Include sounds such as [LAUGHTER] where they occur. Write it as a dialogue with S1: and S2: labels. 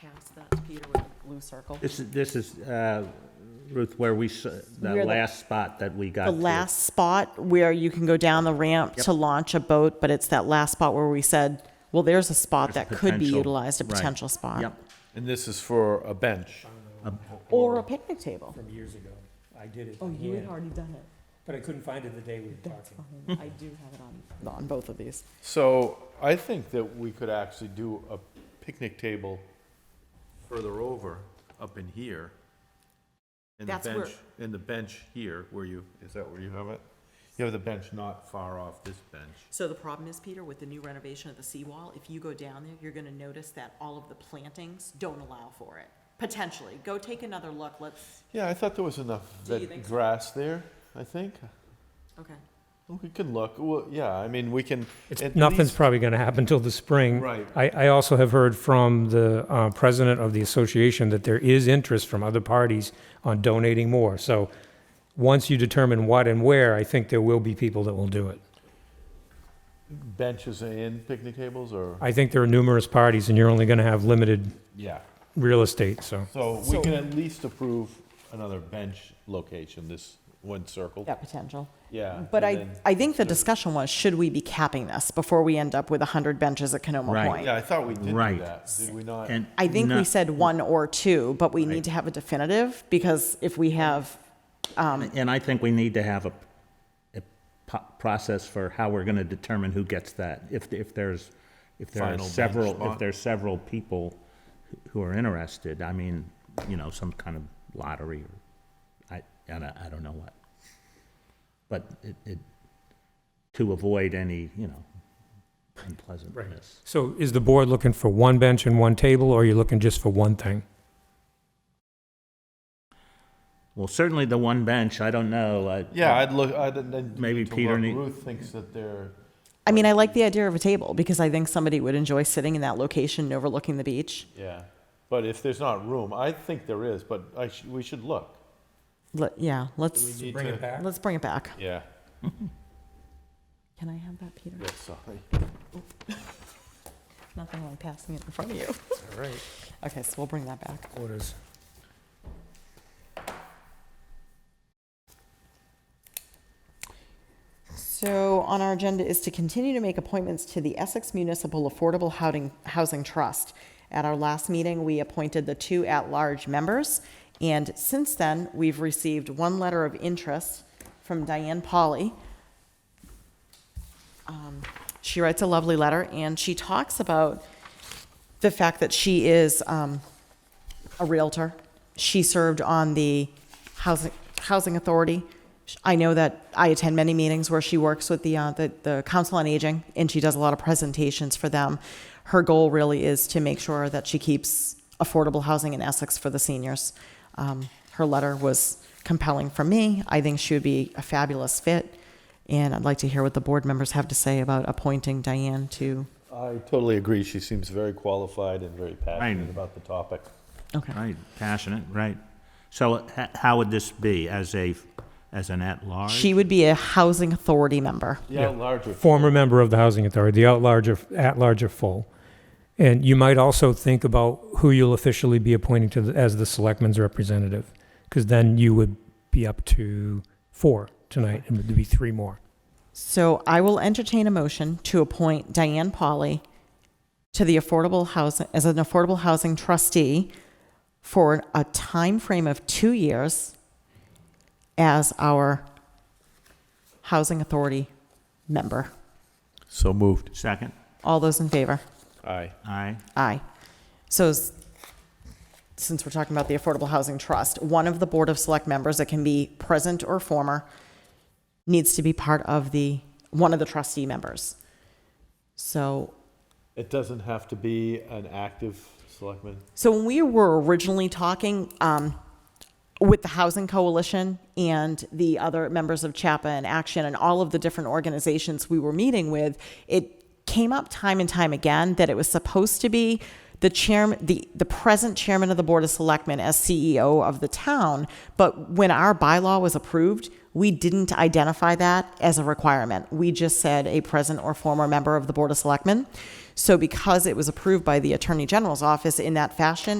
S1: Past that's Peter with the blue circle.
S2: This is, this is, uh, Ruth, where we, s-
S1: Where
S2: the
S1: the-
S2: last spot that we got.
S1: The
S2: to.
S1: last spot where you can go down the ramp to launch a boat, but it's that last spot where we said, well, there's a spot that could be
S2: potential.
S1: utilized, a
S2: Right.
S1: potential spot.
S2: Yep.
S3: And this is for a bench.
S1: Or a picnic table.
S4: from years ago. I did it.
S1: Oh,
S4: by
S1: you had
S4: hand,
S1: already done it.
S4: But I couldn't find it the day we were talking.
S1: [LAUGHS] I do have it on, on both of these.
S3: So I think that we could actually do a picnic table further over, up in here. And the
S1: That's where-
S3: bench, and the bench here, where you, is that where you have it? You have the bench not far off this bench.
S1: So the problem is, Peter, with the new renovation of the seawall, if you go down there, you're gonna notice that all of the plantings don't allow for it, potentially. Go take another look, let's,
S3: Yeah, I thought there was enough
S1: Do you think
S3: that
S1: so?
S3: grass there, I think.
S1: okay.
S3: We can look, well, yeah, I mean, we can.
S5: It's,
S3: at
S5: nothing's
S3: least-
S5: probably going to happen till the spring.
S3: Right.
S5: I, I also have heard from the uh, president of the association that there is interest from other parties on donating more. So once you determine what and where, I think there will be people that will do it.
S3: Benches and picnic tables or,
S5: I think there are numerous parties, and you're only going to have limited
S3: yeah.
S5: real estate. So
S3: So we can at least approve another bench location, this one circle.
S1: Yeah, potential.
S3: Yeah.
S1: But
S3: and
S1: I,
S3: then-
S1: I think the discussion was, should we be capping this before we end up with 100 benches at Canoma
S2: Right.
S1: Point?
S3: Yeah, I thought we did do
S2: Right.
S3: that, did we not?
S2: And
S1: I think we
S2: not-
S1: said one or two, but we need to have a definitive, because if we have,
S2: And I think we need to have a, a po- process for how we're gonna determine who gets that. If, if there's, if there are
S3: Final bench
S2: several, if
S3: spot.
S2: there's several people who are interested, I mean, you know, some kind of lottery, or I, I don't, I don't know what. But it, it, to avoid any, you know, unpleasantness.
S5: so is the board looking for one bench and one table, or are you looking just for one thing?
S2: Well, certainly the one bench, I don't know, I.
S3: Yeah, I'd look, I'd, then.
S2: Maybe Peter need-
S3: Ruth thinks that they're,
S1: I mean, I like the idea of a table, because I think somebody would enjoy sitting in that location overlooking the beach.
S3: yeah, but if there's not room, I think there is, but I, sh- we should look.
S1: Let- Yeah,
S3: We
S1: let's,
S3: need
S4: Bring
S3: to-
S4: it back.
S1: let's bring it back.
S3: Yeah,
S1: Can I have that, Peter?
S3: yeah, sorry.
S1: Nothing like passing it in front of you.
S4: All right.
S1: [LAUGHS]
S4: Oh,
S1: Okay, so we'll bring that back.
S4: Orders.
S1: So on our agenda is to continue to make appointments to the Essex Municipal Affordable Housing, Housing Trust. At our last meeting, we appointed the two at-large members, and since then, we've received one letter of interest from Diane Polly. Um, She writes a lovely letter, and she talks about the fact that she is um, a Realtor. She served on the Housing, Housing Authority. I know that I attend many meetings where she works with the, uh, the, the Council on Aging, and she does a lot of presentations for them. Her goal really is to make sure that she keeps affordable housing in Essex for the seniors. Um, her letter was compelling for me. I think she would be a fabulous fit, and I'd like to hear what the board members have to say about appointing Diane to.
S3: I totally agree, she seems very qualified and very passionate
S2: Fine.
S3: about the topic.
S1: Okay.
S2: Right, passionate, right. So h- how would this be, as a, as an at-large?
S1: She would be a housing authority member.
S3: Yeah, larger.
S5: former member of the housing authority, the at large are, at large are full. And you might also think about who you'll officially be appointing to the, as the selectman's representative, because then you would be up to four tonight, and there'd be three more.
S1: So I will entertain a motion to appoint Diane Polly to the Affordable Housing, as an Affordable Housing Trustee for a time frame of two years as our Housing Authority member.
S3: So moved.
S2: Second?
S1: All those in favor?
S3: Aye.
S2: Aye.
S1: Aye. So s- since we're talking about the Affordable Housing Trust, one of the Board of Select members that can be present or former needs to be part of the, one of the trustee members. So
S3: It doesn't have to be an active selectman.
S1: So when we were originally talking um, with the Housing Coalition and the other members of CHAPA and Action and all of the different organizations we were meeting with, it came up time and time again that it was supposed to be the chairman, the, the present E chairman of the Board of Selectmen as CEO of the town. But when our bylaw was approved, we didn't identify that as a requirement. We just said a present or former member of the Board of Selectmen. So because it was approved by the Attorney General's office in that fashion,